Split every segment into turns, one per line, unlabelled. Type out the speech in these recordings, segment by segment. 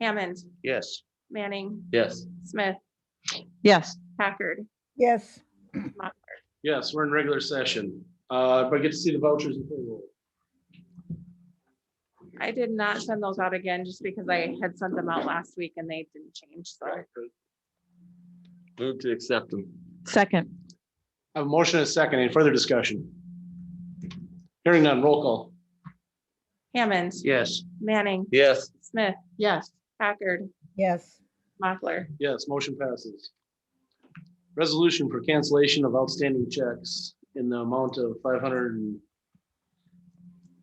Hammond,
Yes.
Manning,
Yes.
Smith,
yes,
Packard,
yes,
Yes, we're in regular session. Uh, but get to see the vouchers and payroll.
I did not send those out again just because I had sent them out last week and they didn't change. So
Move to accept them.
second,
I have a motion and a second. Any further discussion? Hearing none, roll call.
Hammond,
Yes.
Manning,
Yes,
Smith,
yes,
Packard,
yes,
Mochler.
Yes, motion passes. Resolution for cancellation of outstanding checks in the amount of five hundred and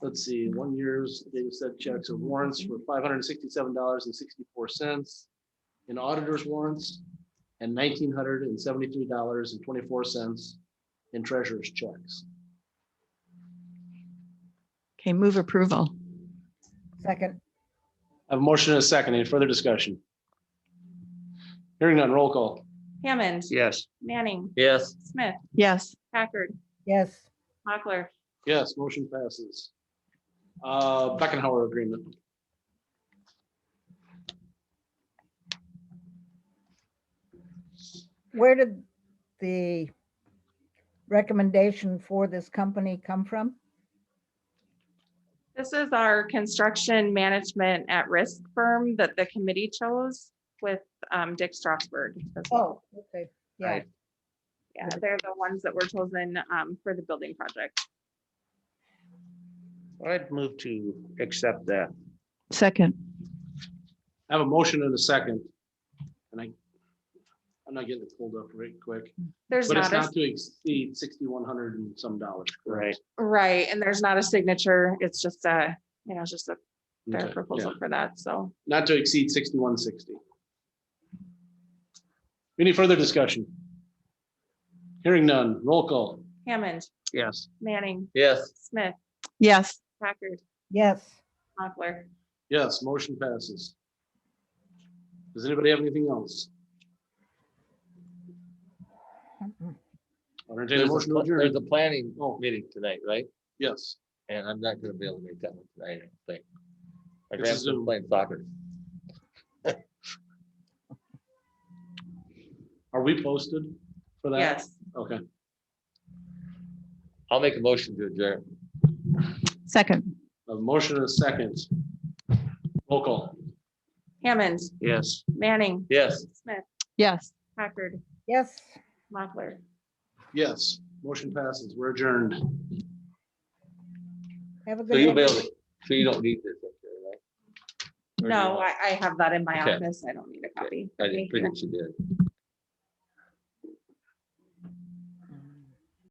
let's see, one year's data set checks or warrants for five hundred and sixty-seven dollars and sixty-four cents in auditor's warrants and nineteen hundred and seventy-three dollars and twenty-four cents in treasurer's checks.
okay, move approval,
second,
I have a motion and a second. Any further discussion? Hearing none, roll call.
Hammond,
Yes.
Manning,
yes,
Smith,
yes,
Packard,
yes,
Mochler.
Yes, motion passes. Uh, Beckenhauer agreement.
where did the recommendation for this company come from?
This is our construction management at risk firm that the committee chose with um, Dick Strasberg. as well.
Oh, okay, yeah,
Right.
Yeah, they're the ones that were chosen um, for the building project.
I'd move to accept that.
second,
I have a motion and a second. And I, I'm not getting it pulled up right quick,
There's
but it's
not a,
not to exceed sixty-one hundred and some dollars. Right.
right, and there's not a signature. It's just a, you know, it's just a fair proposal for that, so.
Not to exceed sixty-one sixty. Any further discussion? Hearing none, roll call.
Hammond,
Yes.
Manning,
yes,
Smith,
yes,
Packard,
yes,
Mochler.
Yes, motion passes. Does anybody have anything else?
Mm-mm.
I'll entertain a
there's a,
motion to
pla- there's
adjourn.
a planning
Oh.
meeting tonight, right?
Yes,
And I'm not gonna be able to make that one tonight, I don't think. My
It's a
grandson's
Zoom.
playing soccer.
are we posted for that?
Yes,
Okay,
I'll make a motion to adjourn.
second,
a motion and a second. Roll call.
Hammond,
Yes.
Manning,
Yes,
Smith,
yes.
Packard,
yes.
Mochler.
Yes, motion passes. We're adjourned.
Have a
so you'll
good
be able,
day.
to- so you don't need this. up here, right? Or do you
No,
want-
I, I have that in my
Okay.
office. I don't need a copy.
I just figured you did.